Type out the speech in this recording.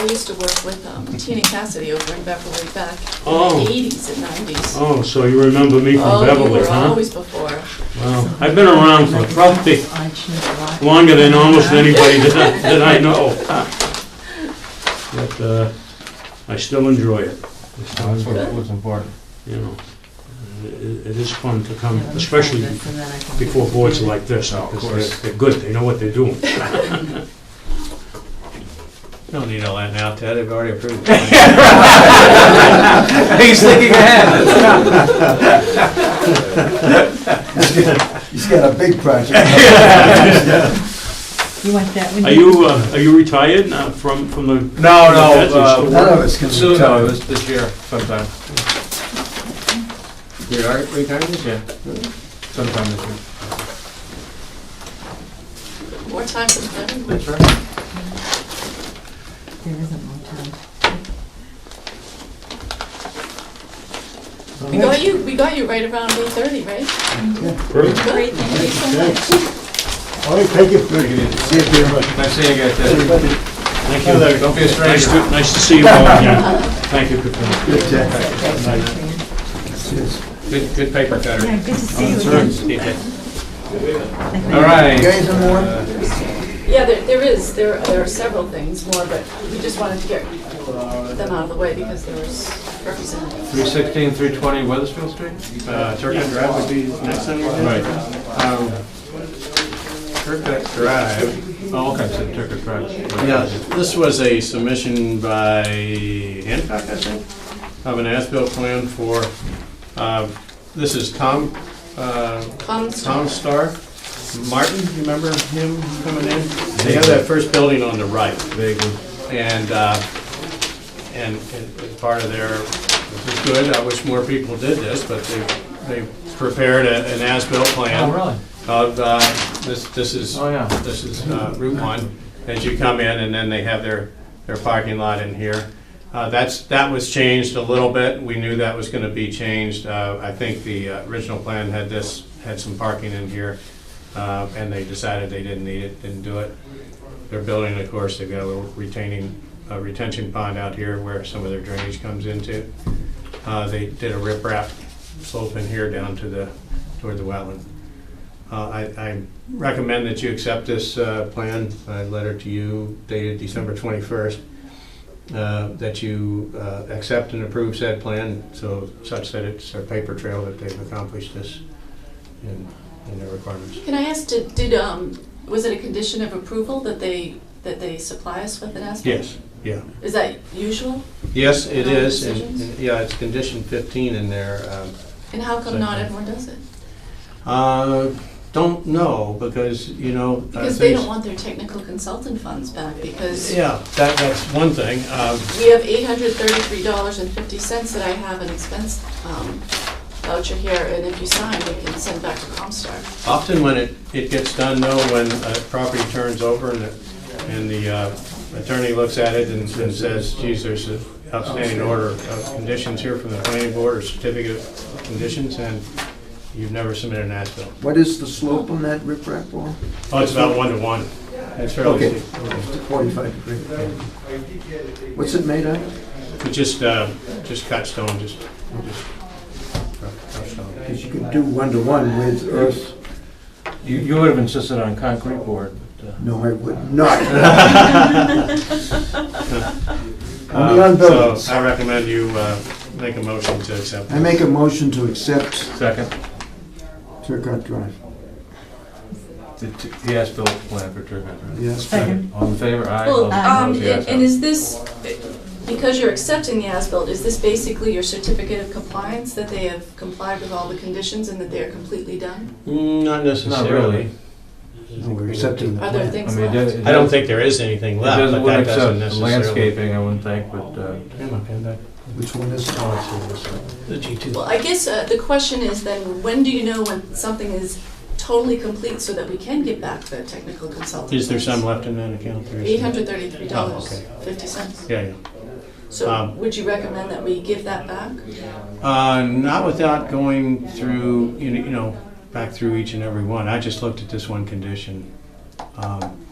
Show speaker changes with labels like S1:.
S1: I used to work with um, Tina Cassidy over in Beverly back in
S2: Oh.
S1: the eighties and nineties. Oh,
S2: Oh, so you remember me from
S1: you
S2: Beverly,
S1: were
S2: huh?
S1: always before.
S2: Wow, I've been around for probably longer than almost anybody that I- that I know. But uh, I still enjoy it,
S3: That's what- what's important.
S2: you know. It it is fun to come, um, especially before boards like this,
S3: Oh, of
S2: because
S3: course.
S2: they're- they're good, they know what they're doing.
S4: No need all that now, Ted, they've already approved.
S3: He's thinking ahead.
S5: He's got a big project.
S6: You want that one?
S2: Are you, uh, are you retired now from, from the?
S3: No, no,
S2: That's a
S3: uh,
S2: short-
S5: None of us can
S3: soon, no, it
S5: retire.
S3: was this year sometime.
S4: You are retired this
S3: Yeah. Sometime this year.
S1: More time for them.
S6: There isn't more time.
S1: We got you, we got you right around eight thirty, right? Great, thank you so much.
S5: All right, thank you. See you very much.
S3: Nice seeing you guys, Ted.
S5: Everybody,
S2: Thank
S5: Hello
S2: you.
S5: there.
S3: Don't be a
S2: Nice
S3: stranger.
S2: to, nice to see you all again. Thank you, Katrina.
S5: good chat. Cheers.
S3: Good, good paper cutter.
S6: Yeah, good to
S2: Oh,
S6: see you again.
S3: All right.
S5: You guys are more?
S1: Yeah, there, there is, there, there are several things more, but we just wanted to get them out of the way because there was representatives.
S3: Three sixteen, three twenty Weathersfield Street? Uh, Turkett Drive would be next on your list. Right. Um, Turkett Drive, oh, okay, so Turkett Drive.
S4: Yeah, this was a submission by Hancock, I think, of an as-built plan for, uh, this is Tom, uh,
S1: Comstock.
S4: Tom Starr, Martin, you remember him coming in? They have that first building on the right. And, uh, and it- it's part of their, this is good, I wish more people did this, but they, they prepared a- an as-built plan.
S3: Oh, really?
S4: Of, uh, this, this is,
S3: Oh, yeah.
S4: this is uh, Route 1, as you come in, and then they have their, their parking lot in here. Uh, That's, that was changed a little bit, we knew that was gonna be changed. Uh, I think the uh, original plan had this, had some parking in here, uh, and they decided they didn't need it, didn't do it. They're building, of course, they've got a little retaining, uh, retention pond out here where some of their drainage comes into. Uh, They did a riprap slope in here down to the, toward the wetland. Uh, I I recommend that you accept this uh, plan, a letter to you dated December 21st, uh, that you uh, accept and approve said plan, so such that it's a paper trail that they've accomplished this in in their requirements.
S1: Can I ask, did, did, um, was it a condition of approval that they, that they supply us with an asphalt?
S4: Yes, yeah.
S1: Is that usual?
S4: Yes, it
S1: Other
S4: is, and-
S1: decisions?
S4: and, yeah, it's condition 15 in there. um,
S1: And how come
S4: Same
S1: not
S4: thing.
S1: everyone does it?
S4: Uh, Don't know, because, you know. uh,
S1: Because they
S4: things-
S1: don't want their technical consultant funds back because
S4: Yeah, that, that's one thing. um,
S1: we have eight hundred thirty-three dollars and fifty cents that I have an expense, um, voucher here, and if you sign, we can send back to Comstar.
S4: Often when it, it gets done, though, when a property turns over and, the- and the uh, attorney looks at it and and says, geez, there's an outstanding order of conditions here from the planning board or certificate of conditions, and you've never submitted an as-built.
S5: What is the slope on that riprap wall?
S4: Oh, it's about one to one. It's fairly,
S5: Okay,
S4: steep.
S5: forty-five degree. What's it made of?
S4: it's just, uh, just cut stone, just, just rough- rough stone.
S5: Because you can do one-to-one with earth.
S3: You, you would have insisted on concrete board, but, uh,
S5: No, I would not. Only on
S4: Uh,
S5: buildings.
S4: So I recommend you uh, make a motion to accept.
S5: I make a motion to accept
S3: second,
S5: Turcot Drive.
S3: the, the as-built plan for Turkett Drive.
S5: Yes.
S6: Second.
S3: All in favor? Aye. All
S1: Well, um,
S3: opposed? Yes,
S1: and and is this, because you're accepting the as-built, is this basically your certificate of compliance, that they have complied with all the conditions and that they are completely done?
S4: Mm,
S3: Not really.
S4: Not necessarily.
S5: No, We're accepting the
S1: Are there
S5: plan.
S3: I
S1: things
S3: mean, it
S1: left?
S3: does- it
S4: I don't
S3: does-
S4: think there is anything
S3: It
S4: left, but
S3: doesn't,
S4: that
S3: would
S4: doesn't
S3: accept
S4: necessarily.
S3: landscaping, I wouldn't think, but, uh,
S5: Which one is?
S4: The G2.
S1: Well, I guess uh, the question is then, when do you know when something is totally complete so that we can get back the technical consultant?
S4: Is there some left in that account? There is.
S1: Eight hundred thirty-three
S4: Oh,
S1: dollars,
S4: okay.
S1: fifty cents.
S4: Yeah, yeah.
S1: So
S4: Um,
S1: would you recommend that we give that back?
S4: Uh, Not without going through, you know- you know, back through each and every one. I just looked at this one condition. Um,